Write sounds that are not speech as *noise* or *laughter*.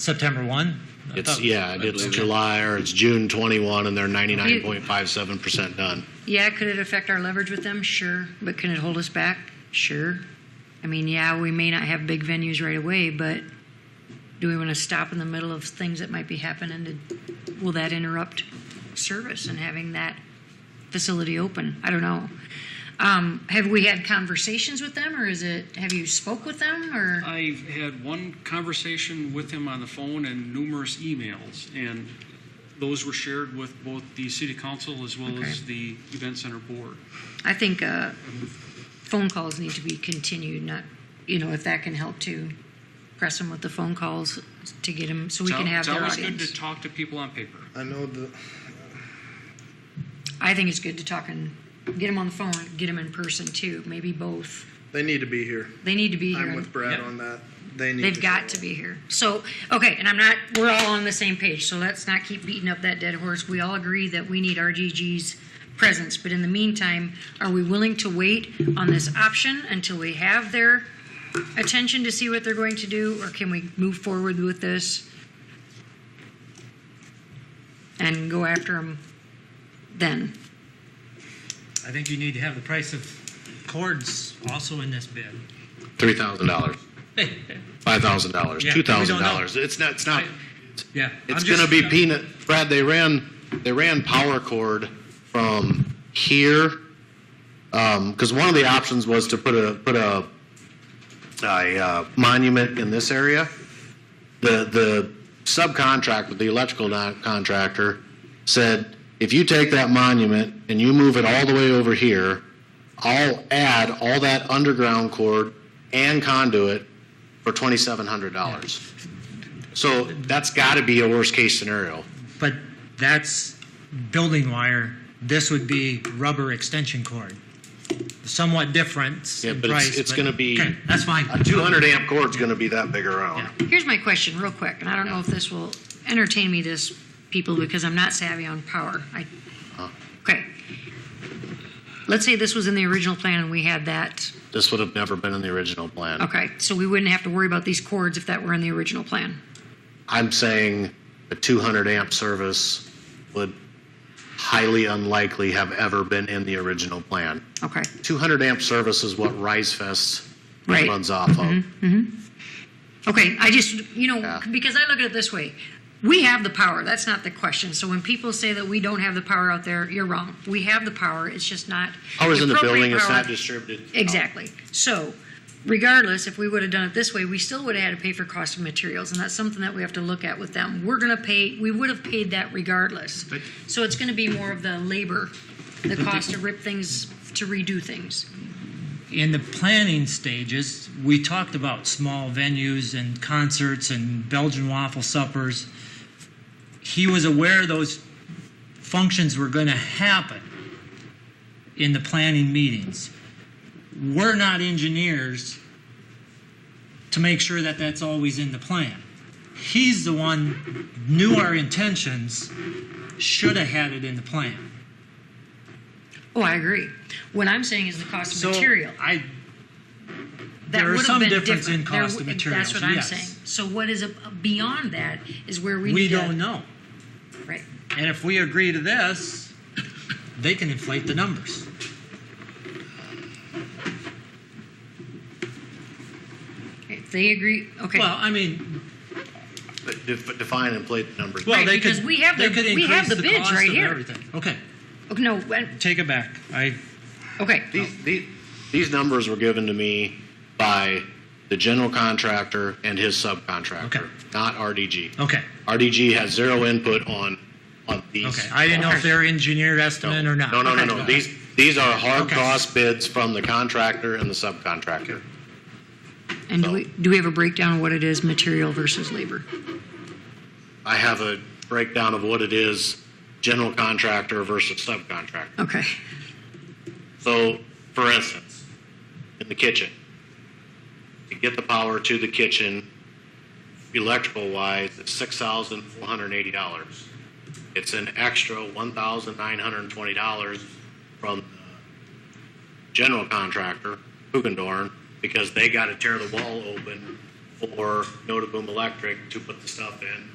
September 1? Oh, It's, yeah, it's believe it. July or it's June 21 and they're 99.57% done. Yeah, could it affect our leverage with them? Sure. But can it hold us back? Sure. I mean, yeah, we may not have big venues right away, but do we want to stop in the middle of things that might be happening? To, will that interrupt service and having that facility open? I don't know. Um, have we had conversations with them, or is it? Have you spoke with them, or I've had one conversation with him on the phone and numerous emails, and those were shared with both the city council as well as Okay. the event center board. I think uh, phone calls need to be continued. Not, you know, if that can help to press them with the phone calls to get them so we It's can al- have their It's always good audience. to talk to people on paper. I know the, I think it's good to talk and get them on the phone, get them in person too. Maybe both. they need to be here. They need to be here. I'm with Brad Yeah. on that. They need. They've got to be here. So, okay, and I'm not, we're all on the same page, so let's not keep beating up that dead horse. We all agree that we need RGG's presence, but in the meantime, are we willing to wait on this option until we have their attention to see what they're going to do, or can we move forward with this and go after them then? I think you need to have the price of cords also in this bid. $3,000, $5,000, Yeah, we don't know. $2,000. It's not, it's not, *laughs* Yeah. it's going to be peanut. Brad, they ran, they ran power cord from here. Um 'cause cause one of the options was to put a, put a, a uh, monument in this area. The, the subcontractor, the electrical non- contractor said, if you take that monument and you move it all the way over here, I'll add all that underground cord and conduit for twenty-seven hundred dollars. So that's got to be a worst case scenario. But that's building wire. This would be rubber extension cord. Somewhat different Yeah, in but it's- price. it's gonna be- Okay, That's fine. A 200 amp cord's going to be that big around. Here's my question, real quick, and I don't know if this will entertain me, this people, because I'm not savvy on power. I, okay. Let's say this was in the original plan and we had that. This would have never been in the original plan. Okay, so we wouldn't have to worry about these cords if that were in the original plan. I'm saying a 200 amp service would highly unlikely have ever been in the original plan. Okay, 200 amp service is what Rise Fest Right. runs off of. okay. I just, you know, Yeah. because I look at it this way. We have the power. That's not the question. So when people say that we don't have the power out there, you're wrong. We have the power. It's just not. Power's in the appropriate building, it's power. not distributed. Exactly. So regardless, if we would have done it this way, we still would have had to pay for cost of materials, and that's something that we have to look at with them. We're gonna pay, we would have paid that regardless. So it's gonna be more of the labor, the cost to rip things, to redo things. in the planning stages, we talked about small venues and concerts and Belgian waffle suppers. He was aware those functions were going to happen in the planning meetings. We're not engineers to make sure that that's always in the plan. He's the one knew our intentions, should have had it in the plan. Oh, I agree. What I'm saying is the cost So of material. I That there are would have some been difference in different. There cost of w- materials, That's what I'm yes. saying. So what is a- beyond that is where we we need to. don't know. Right. And if we agree to this, they can inflate the numbers. If they agree, okay. Well, I mean, But def- Define and plate the numbers. well, Right, they because could, we have they the- could we have increase the bids cost right of here. everything. Okay, Okay, No, when- take it back. I okay. These, these, these numbers were given to me by the general contractor and his Okay. subcontractor, not RDG. okay RDG has zero input on, on these. okay. I didn't know if they're engineered estimate or not. No, no, no, Okay. no. These, these are hard Okay. cost bids from the contractor and the subcontractor. And do we, do we have a breakdown of what it is, material versus labor? I have a breakdown of what it is, general contractor versus subcontractor. Okay. So, for instance, in the kitchen, to get the power to the kitchen, electrical wise, it's six thousand four hundred eighty dollars. It's an extra one thousand nine hundred twenty dollars from the general contractor, Hugendorn, because they got to tear the wall open or Notaboom Electric to put the stuff in.